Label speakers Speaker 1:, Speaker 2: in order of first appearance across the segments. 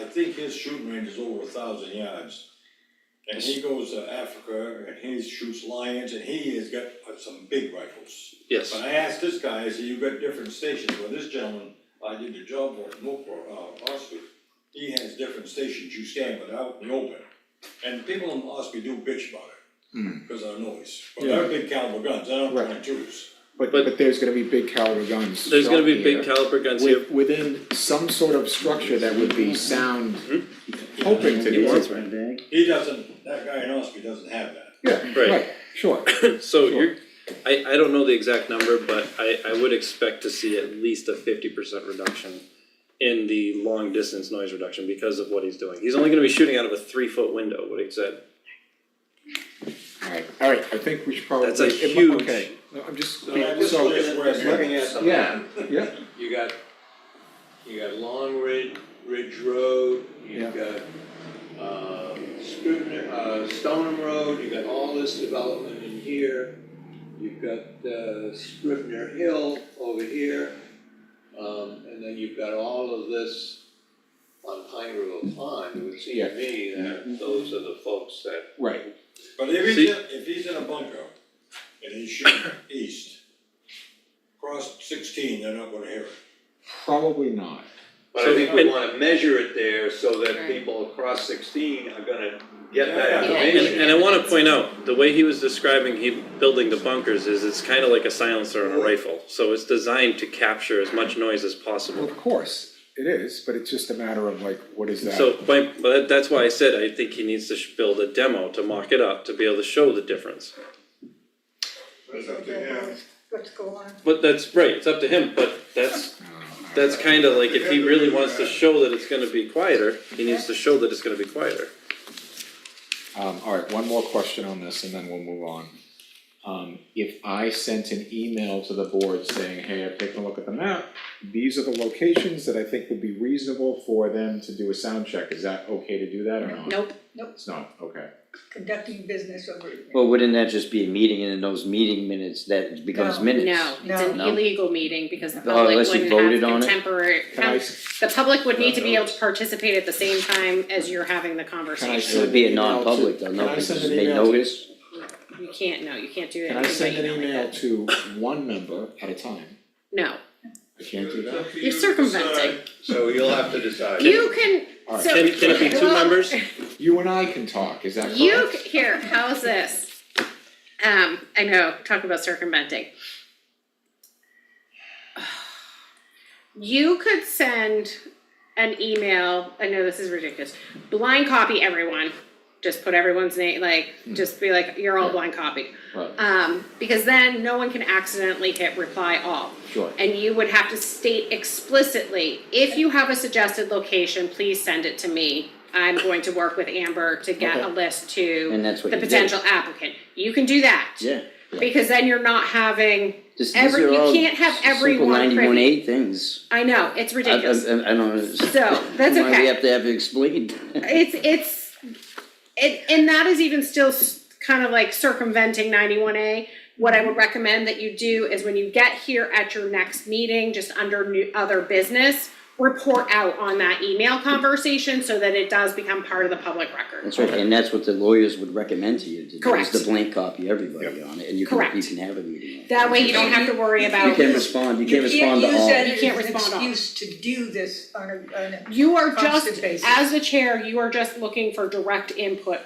Speaker 1: think his shooting range is over a thousand yards. And he goes to Africa and he shoots lions and he has got uh, some big rifles.
Speaker 2: Yes.
Speaker 1: When I asked this guy, I said, you got different stations, well, this gentleman, I did the job for him, work for, uh, Osby, he has different stations you stand without in the open. And people in Osby do bitch about it, cause of noise, but they're big caliber guns, I don't
Speaker 3: Right.
Speaker 1: try to choose.
Speaker 3: But,
Speaker 2: But-
Speaker 3: but there's gonna be big caliber guns.
Speaker 2: There's gonna be
Speaker 3: shot
Speaker 2: big
Speaker 3: here
Speaker 2: caliber guns here. Mm-hmm.
Speaker 3: With, within some sort of structure that would be sound, hoping to
Speaker 2: You
Speaker 3: do.
Speaker 2: want-
Speaker 1: He doesn't, that guy in Osby doesn't have that.
Speaker 3: Yeah,
Speaker 2: Right.
Speaker 3: right, sure,
Speaker 2: So you're, I, I don't know the exact number, but I, I would expect to see at least a fifty percent reduction in the long distance noise reduction because of what he's doing. He's only gonna be shooting out of a three foot window, what he said.
Speaker 3: alright, alright, I think we should probably.
Speaker 2: That's a
Speaker 3: it mu-
Speaker 2: huge-
Speaker 3: Okay, no, I'm just,
Speaker 4: So I
Speaker 3: be-
Speaker 4: just
Speaker 3: so,
Speaker 1: That's where it's-
Speaker 4: Just looking at something.
Speaker 3: yeah, yeah,
Speaker 4: You got, you got Long Ridge, Ridge Road, you've got, um, Scrivener, uh, Stoneham Road, you got all this development in here. You've got, uh, Scrivener Hill over here, um, and then you've got all of this on Pine Grove Pond. It would seem
Speaker 3: Yeah.
Speaker 4: to me that those are the folks that
Speaker 3: right,
Speaker 1: But if he's
Speaker 2: See-
Speaker 1: in, if he's in a bunker and he's shooting east, across sixteen, they're not gonna hear it.
Speaker 3: probably not.
Speaker 4: But
Speaker 2: So-
Speaker 4: I think we wanna measure it there so that
Speaker 5: Right.
Speaker 4: people across sixteen are gonna get
Speaker 1: Yeah.
Speaker 4: that
Speaker 5: Yeah.
Speaker 2: And,
Speaker 4: information.
Speaker 2: and I wanna point out, the way he was describing he building the bunkers is it's kinda like a silencer on a rifle. So it's designed to capture as much noise as
Speaker 3: Well,
Speaker 2: possible.
Speaker 3: of course, it is, but it's just a matter of like, what is that?
Speaker 2: So, my, but that- that's why I said I think he needs to sh- build a demo to mock it up, to be able to show the difference.
Speaker 6: That's up to him.
Speaker 5: What's going on?
Speaker 2: But that's, right, it's up to him, but that's,
Speaker 3: Uh,
Speaker 2: that's kinda like, if he really wants to show that it's gonna be quieter, he needs to show that it's gonna be quieter.
Speaker 3: Um, alright, one more question on this and then we'll move on. Um, if I sent an email to the board saying, hey, I've taken a look at the map, these are the locations that I think would be reasonable for them to do a sound check, is that okay to do that or not?
Speaker 5: Nope, nope,
Speaker 3: It's not, okay.
Speaker 5: conducting business over here.
Speaker 7: Well, wouldn't that just be a meeting and in those meeting minutes that becomes
Speaker 5: No.
Speaker 7: minutes?
Speaker 8: No, it's an
Speaker 7: No.
Speaker 8: illegal meeting because the
Speaker 7: Oh,
Speaker 8: public
Speaker 7: unless you
Speaker 8: wouldn't
Speaker 7: voted on
Speaker 8: have
Speaker 7: it?
Speaker 8: contemporary.
Speaker 3: Can I, s-
Speaker 8: The public would need to be
Speaker 2: Yeah.
Speaker 8: able to participate at the same time as you're having the
Speaker 3: can I
Speaker 8: conversation.
Speaker 7: It
Speaker 3: send
Speaker 7: would
Speaker 3: an
Speaker 7: be a
Speaker 3: email to-
Speaker 7: non-public though,
Speaker 3: can
Speaker 7: no,
Speaker 3: I
Speaker 7: because
Speaker 3: send an
Speaker 7: they
Speaker 3: email to-
Speaker 7: notice,
Speaker 8: You can't, no, you can't do
Speaker 3: Can I
Speaker 8: anything by
Speaker 3: send an
Speaker 8: email like
Speaker 3: email to
Speaker 8: that.
Speaker 3: one member at a time?
Speaker 8: No,
Speaker 3: I can't do that?
Speaker 8: you're circumventing.
Speaker 4: So you'll have to decide.
Speaker 8: You can,
Speaker 3: Alright.
Speaker 8: so.
Speaker 2: Can, can it be two
Speaker 8: Well,
Speaker 2: members?
Speaker 3: You and I can talk, is that correct?
Speaker 8: You, c- here, how's this? Um, I know, talk about circumventing. You could send an email, I know this is ridiculous, blind copy everyone. Just put everyone's name, like, just be like, you're all blind copy.
Speaker 3: Right,
Speaker 8: Um, because then no one can accidentally hit reply all.
Speaker 3: sure,
Speaker 8: And you would have to state explicitly, if you have a suggested location, please send it to me. I'm going to work with Amber to get a
Speaker 3: Okay.
Speaker 8: list to
Speaker 7: And that's what
Speaker 8: the
Speaker 7: you did.
Speaker 8: potential applicant. You can do that.
Speaker 7: yeah.
Speaker 8: Because then you're not having,
Speaker 7: This, these
Speaker 8: Every-
Speaker 7: are
Speaker 8: you
Speaker 7: all
Speaker 8: can't have
Speaker 7: simple
Speaker 8: everyone privy.
Speaker 7: ninety-one eight things.
Speaker 8: I know, it's
Speaker 7: I- I-
Speaker 8: ridiculous.
Speaker 7: I, I don't. know.
Speaker 8: So, that's
Speaker 7: Why we
Speaker 8: okay.
Speaker 7: have to have it explained?
Speaker 8: It's, it's, it, and that is even still s- kind of like circumventing ninety-one A. What I would recommend that you do is when you get here at your next meeting, just under new, other business, report out on that email conversation so that it does become part of the public record.
Speaker 7: That's right, and that's what the lawyers would recommend to you, to do, is
Speaker 8: Correct.
Speaker 7: to blank copy everybody on it, and you can, you
Speaker 8: Correct.
Speaker 7: can have a meeting. on it.
Speaker 8: That way you don't have to worry
Speaker 7: You
Speaker 8: about,
Speaker 7: can respond, you can respond to all.
Speaker 8: You can't respond to all.
Speaker 5: You can't use that as an excuse to do this on a, on a.
Speaker 8: you are
Speaker 5: Constant
Speaker 8: just,
Speaker 5: basis.
Speaker 8: as the chair, you are just looking for direct input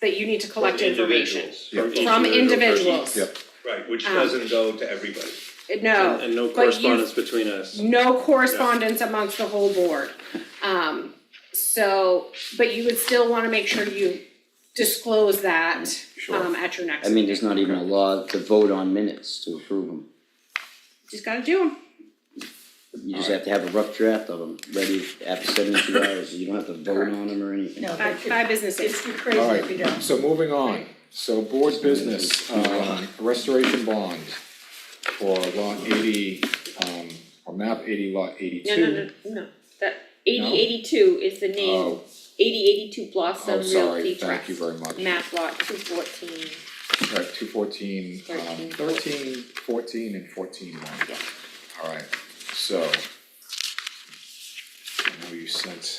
Speaker 8: that you need to collect information
Speaker 4: From
Speaker 8: from individuals.
Speaker 3: Yep.
Speaker 4: Right, which
Speaker 8: Um,
Speaker 4: doesn't go to everybody.
Speaker 8: No.
Speaker 2: And no
Speaker 8: but you-
Speaker 2: correspondence between us.
Speaker 8: no correspondence amongst the whole board. Um, so, but you would still wanna make sure you disclose that, um, at your next
Speaker 7: I
Speaker 8: meeting.
Speaker 7: mean, there's not even a law to vote on minutes to approve them,
Speaker 8: Just gotta do them.
Speaker 7: you just have to have a rough draft of them, ready after seventy-two hours, you don't have to vote on them or anything.
Speaker 5: No,
Speaker 8: Five,
Speaker 5: but
Speaker 8: five business days.
Speaker 5: it's, it's crazy if you don't.
Speaker 3: Alright, so moving on, so board business, um, restoration bond for lot eighty, um, or map eighty, lot
Speaker 9: No, no,
Speaker 3: eighty-two.
Speaker 9: no, no, that eighty eighty-two is the name,
Speaker 3: Oh,
Speaker 9: eighty eighty-two Blossom
Speaker 3: oh, sorry,
Speaker 9: Realty
Speaker 3: thank
Speaker 9: Trust,
Speaker 3: you very much.
Speaker 9: map lot two fourteen.
Speaker 3: Right, two fourteen, um,
Speaker 9: Thirteen.
Speaker 3: thirteen, fourteen, and fourteen one. Alright, so. I know you sent